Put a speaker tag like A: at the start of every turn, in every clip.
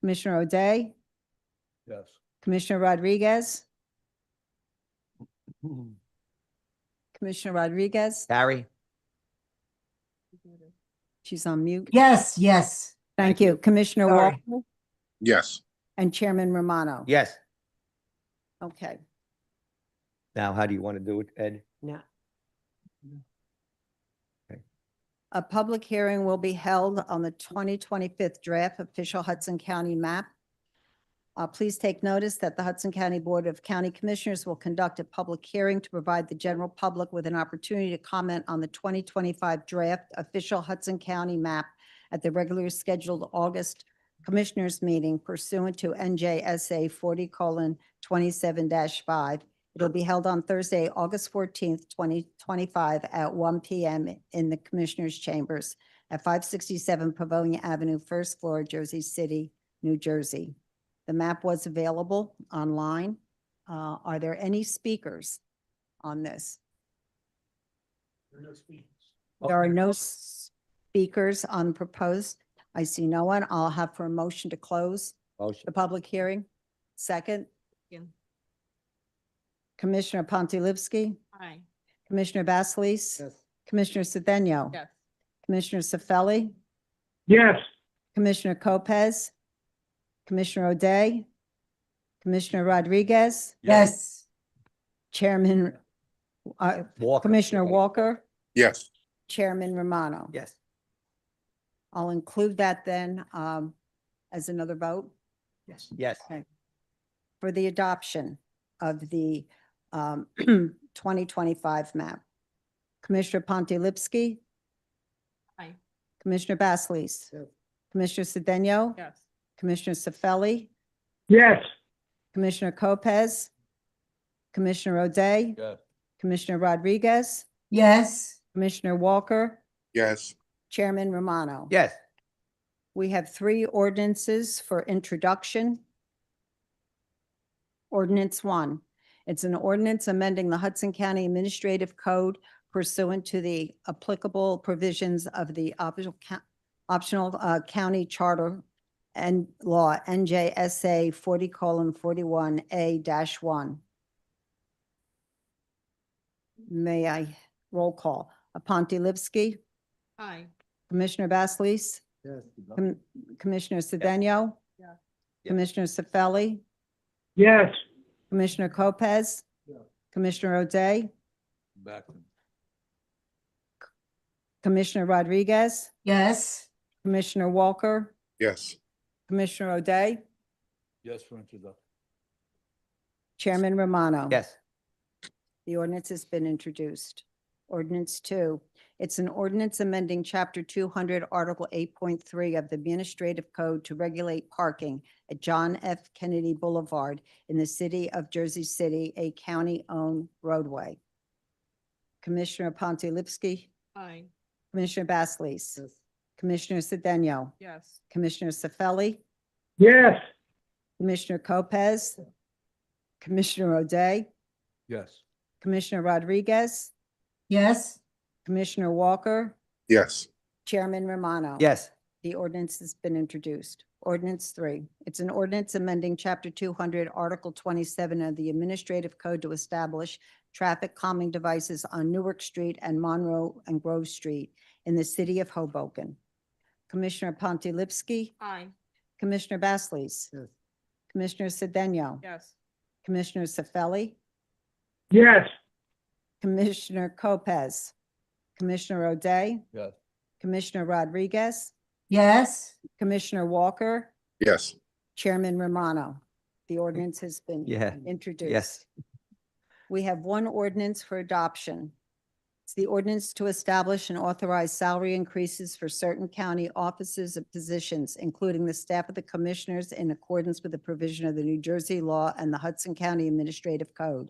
A: Commissioner O'Day,
B: Yes.
A: Commissioner Rodriguez, Commissioner Rodriguez,
C: Barry?
A: she's on mute.
D: Yes, yes.
A: Thank you. Commissioner
D: Sorry.
A: Walker
B: Yes.
A: and Chairman Romano.
C: Yes.
A: Okay.
C: Now, how do you want to do it, Ed?
A: A public hearing will be held on the 2025 draft official Hudson County map. Uh, Please take notice that the Hudson County Board of County Commissioners will conduct a public hearing to provide the general public with an opportunity to comment on the 2025 draft official Hudson County map at the regularly scheduled August Commissioners Meeting pursuant to NJSA 40:27-5 It'll be held on Thursday, August fourteenth, twenty twenty-five at one PM in the Commissioners' Chambers at five sixty-seven Pavonia Avenue, first floor, Jersey City, New Jersey. The map was available online. Uh, are there any speakers on this?
C: Oh,
A: There are no s- speakers on proposed. I see no one. I'll have for a motion to close
C: Motion.
A: the public hearing. Second?
E: Yeah.
A: Commissioner Pontilivski,
E: Aye.
A: Commissioner Basleys, Commissioner Sedano.
E: Yes.
A: Commissioner Sefeli,
B: Yes.
A: Commissioner Lopez, Commissioner O'Day, Commissioner Rodriguez,
D: Yes.
A: Chairman, uh,
C: Walker.
A: Commissioner Walker,
B: Yes.
A: Chairman Romano.
C: Yes.
A: I'll include that then um, as another vote.
C: Yes. Yes.
A: for the adoption of the um, 2025 map. Commissioner Pontilivski?
E: Aye.
A: Commissioner Basleys? Commissioner Cedeno?
E: Yes.
A: Commissioner Sefeli?
B: Yes.
A: Commissioner Lopez? Commissioner O'Day?
B: Yes.
A: Commissioner Rodriguez?
D: Yes.
A: Commissioner Walker?
B: Yes.
A: Chairman Romano?
C: Yes.
A: We have three ordinances for introduction. Ordinance one, it's an ordinance amending the Hudson County Administrative Code pursuant to the applicable provisions of the optional, co- optional uh, county charter and law NJSA forty colon forty-one A dash one. May I roll call? Pontilivski,
E: Aye.
A: Commissioner Basleys? Com- Commissioner Cedeno?
E: Yeah.
C: Yeah.
A: Commissioner Sefeli?
B: Yes.
A: Commissioner Lopez?
B: Yeah.
A: Commissioner O'Day?
B: Back.
A: Commissioner Rodriguez?
D: Yes.
A: Commissioner Walker?
B: Yes.
A: Commissioner O'Day?
B: Yes, for introduction.
A: Chairman Romano?
C: Yes.
A: The ordinance has been introduced. Ordinance two, it's an ordinance amending Chapter two hundred, Article eight point three of the Administrative Code to regulate parking at John F. Kennedy Boulevard in the city of Jersey City, a county-owned roadway. Commissioner Pontilivski,
E: Aye.
A: Commissioner Basleys, Commissioner Cedeno,
E: Yes.
A: Commissioner Sefeli,
B: Yes.
A: Commissioner Lopez, Commissioner O'Day,
B: Yes.
A: Commissioner Rodriguez,
D: Yes.
A: Commissioner Walker,
B: Yes.
A: Chairman Romano.
C: Yes.
A: The ordinance has been introduced. Ordinance three, it's an ordinance amending Chapter two hundred, Article twenty-seven of the Administrative Code to establish traffic calming devices on Newark Street and Monroe and Grove Street in the city of Hoboken. Commissioner Pontilivski,
E: Aye.
A: Commissioner Basleys,
C: Yes.
A: Commissioner Cedeno,
E: Yes.
A: Commissioner Sefeli,
B: Yes.
A: Commissioner Lopez, Commissioner O'Day,
B: Yes.
A: Commissioner Rodriguez,
D: Yes.
A: Commissioner Walker,
B: Yes.
A: Chairman Romano, the ordinance has been
C: Yeah.
A: introduced.
C: Yes.
A: We have one ordinance for adoption. It's the ordinance to establish and authorize salary increases for certain county offices and positions, including the staff of the commissioners in accordance with the provision of the New Jersey law and the Hudson County Administrative Code.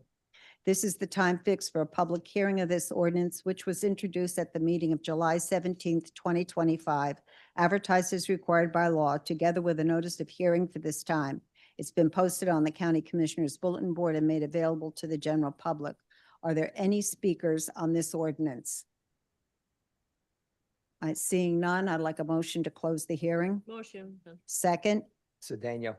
A: This is the time fixed for a public hearing of this ordinance, which was introduced at the meeting of July seventeenth, twenty twenty-five, advertised as required by law, together with a notice of hearing for this time. It's been posted on the County Commissioners Bulletin Board and made available to the general public. Are there any speakers on this ordinance? Uh, Seeing none, I'd like a motion to close the hearing.
E: Motion.
A: Second,
C: Sedano.